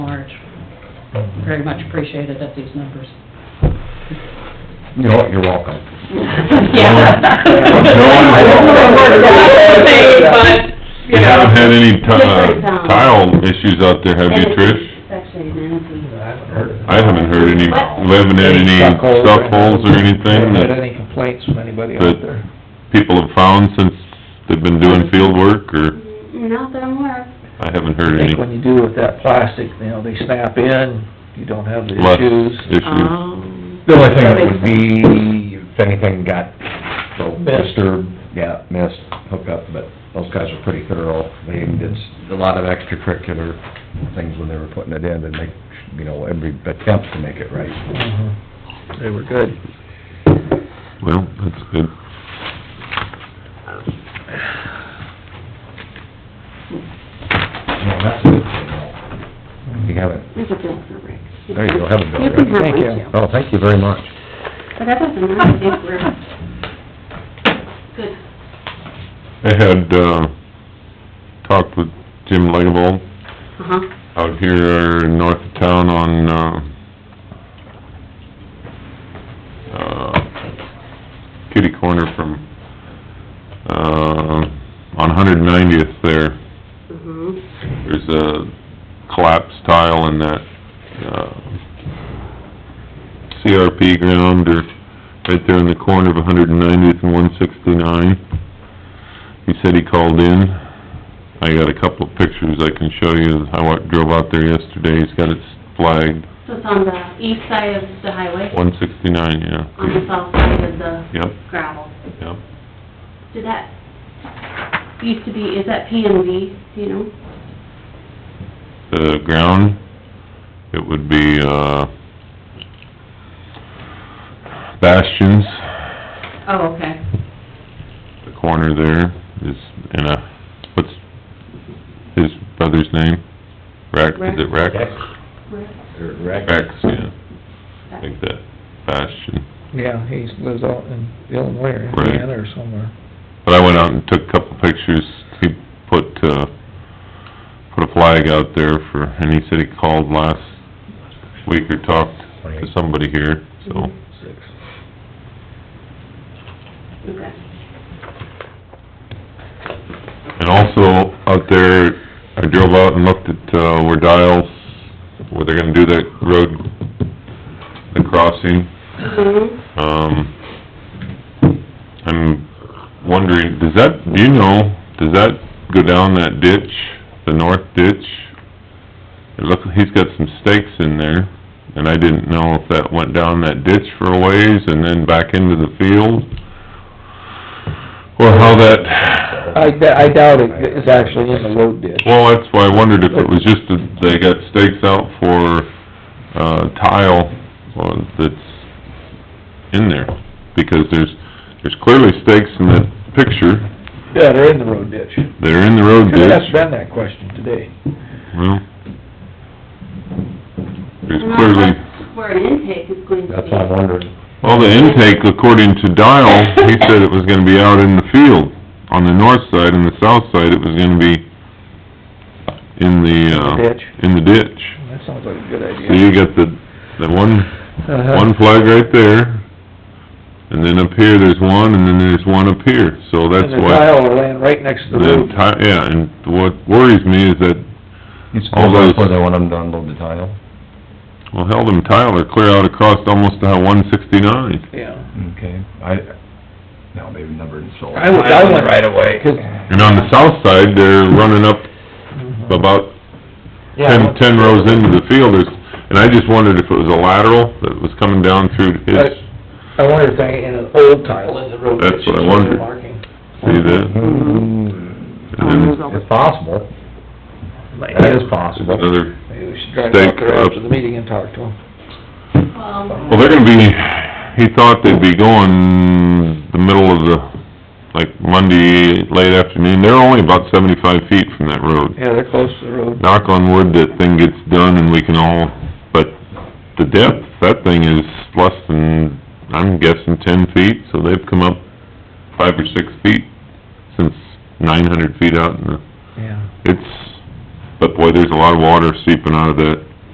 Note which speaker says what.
Speaker 1: very much appreciated at these numbers.
Speaker 2: No, you're welcome.
Speaker 1: Yeah.
Speaker 2: I don't know what we're gonna say,
Speaker 1: But,
Speaker 3: You haven't had any ti-
Speaker 4: Different
Speaker 3: uh,
Speaker 4: town.
Speaker 3: tile issues out there, have you, Trish?
Speaker 4: Section ninety.
Speaker 3: I haven't heard any, we haven't had any
Speaker 2: Stuck holes or-
Speaker 3: stuff holes or anything
Speaker 2: Haven't had
Speaker 3: that
Speaker 2: any complaints from anybody out
Speaker 3: But-
Speaker 2: there.
Speaker 3: people have found since they've been doing field work, or
Speaker 4: Not that I'm aware of.
Speaker 3: I haven't
Speaker 2: I
Speaker 3: heard any
Speaker 2: think when you do with that plastic, you know, they snap in, you don't have the
Speaker 3: less
Speaker 2: issues.
Speaker 3: issues.
Speaker 4: Uh-huh.
Speaker 5: The only thing that would be, if anything got so
Speaker 2: Missed.
Speaker 5: disturbed, yeah, missed, hookup, but those guys were pretty thorough. They did s- a lot of extracurricular things when they were putting it in, and make, you know, every attempt to make it right.
Speaker 2: Mhm. They were good.
Speaker 3: Well, that's good.
Speaker 5: You know, that's a good thing, though. You haven't,
Speaker 4: There's a bill for Rick.
Speaker 5: There you go, have a bill,
Speaker 4: You can have
Speaker 2: Rick.
Speaker 4: one
Speaker 2: Thank you.
Speaker 4: too.
Speaker 5: oh, thank you very much.
Speaker 4: But that doesn't matter, I think we're good.
Speaker 3: I had, uh, talked with Jim Langevall
Speaker 4: Uh-huh.
Speaker 3: out here north of town on, uh, uh, kitty corner from, uh, on Hundred Ninetieth there.
Speaker 4: Mm-hmm.
Speaker 3: There's a collapsed tile in that, uh, CRP ground or right there in the corner of Hundred and Ninetieth and One Sixty-nine. He said he called in. I got a couple of pictures I can show you. I wa- drove out there yesterday. He's got it flagged,
Speaker 4: So it's on the east side of the highway,
Speaker 3: One Sixty-nine, yeah.
Speaker 4: on the south side of the
Speaker 3: Yep,
Speaker 4: gravel.
Speaker 3: yep.
Speaker 4: Did that, used to be, is that P and V, do you know?
Speaker 3: The ground, it would be, uh, Bastions,
Speaker 4: Oh, okay.
Speaker 3: the corner there is, in a, what's his brother's name? Rex, is it Rex?
Speaker 5: Or rec-
Speaker 3: Rex, yeah, I think that Bastion.
Speaker 2: Yeah, he lives out in Illinois or
Speaker 3: Right.
Speaker 2: Indiana or somewhere.
Speaker 3: But I went out and took a couple pictures, he put, uh, put a flag out there for, and he said he called last week or talked to somebody here, so.
Speaker 5: six.
Speaker 4: Okay.
Speaker 3: And also, out there, I drove out and looked at, uh, where Dials, where they're gonna do that road, the crossing,
Speaker 4: Mm-hmm.
Speaker 3: um, I'm wondering, does that, do you know, does that go down that ditch, the north ditch? It looks, he's got some stakes in there, and I didn't know if that went down that ditch for a ways and then back into the field, or how that...
Speaker 2: I d- I doubt it is actually in the road ditch.
Speaker 3: Well, that's why I wondered if it was just that they got stakes out for, uh, tile uh, that's in there, because there's, there's clearly stakes in that picture,
Speaker 2: Yeah, they're in the road ditch.
Speaker 3: they're in the road
Speaker 2: Should
Speaker 3: ditch.
Speaker 2: ask Ben that question today.
Speaker 3: Well, There's
Speaker 4: And
Speaker 3: clearly,
Speaker 4: that's Where an intake is going to
Speaker 5: That's
Speaker 4: be.
Speaker 5: what I'm wondering.
Speaker 3: well, the intake, according to Dial, he said it was gonna be out in the field, on the north side, and the south side, it was gonna be in the, uh...
Speaker 2: Ditch.
Speaker 3: In the ditch.
Speaker 2: That sounds like a good
Speaker 3: So
Speaker 2: idea.
Speaker 3: you got the, the one
Speaker 2: Uh-huh.
Speaker 3: one flag right there, and then up here, there's one, and then there's one up here, so that's
Speaker 2: And the
Speaker 3: why.
Speaker 2: tile laying right next to the
Speaker 3: The
Speaker 2: road.
Speaker 3: ti- yeah, and what worries me is that,
Speaker 5: You
Speaker 3: All
Speaker 5: still
Speaker 3: those-
Speaker 5: where they want them to unload the tile?
Speaker 3: well, hell, them tile are clear out across almost to one sixty-nine.
Speaker 2: Yeah.
Speaker 5: Okay, I, no, they've never sold.
Speaker 2: I would- I would- Right
Speaker 5: away.
Speaker 2: 'Cause-
Speaker 3: And on the south side, they're running up about ten, ten rows into the field, there's, and I just wondered if it was a lateral that was coming down through his,
Speaker 2: Right. I wonder if they, in an old tile in the road ditch.
Speaker 3: That's what I wondered.
Speaker 2: marking.
Speaker 3: see that? Mm-hmm. And then
Speaker 5: It's possible,
Speaker 2: Like,
Speaker 5: that is
Speaker 2: Mm-hmm.
Speaker 5: possible.
Speaker 3: Another,
Speaker 2: Maybe we should drive out there after the meeting and talk to them.
Speaker 4: Um,
Speaker 3: well, they're gonna be, he thought they'd be going the middle of the, like Monday, late afternoon, they're only about seventy-five feet from that road.
Speaker 2: Yeah, they're close to the road.
Speaker 3: Knock on wood, that thing gets done and we can all, but the depth, that thing is less than, I'm guessing ten feet, so they've come up five or six feet since nine hundred feet out in the,
Speaker 2: Yeah.
Speaker 3: it's, but boy, there's a lot of water seeping out of that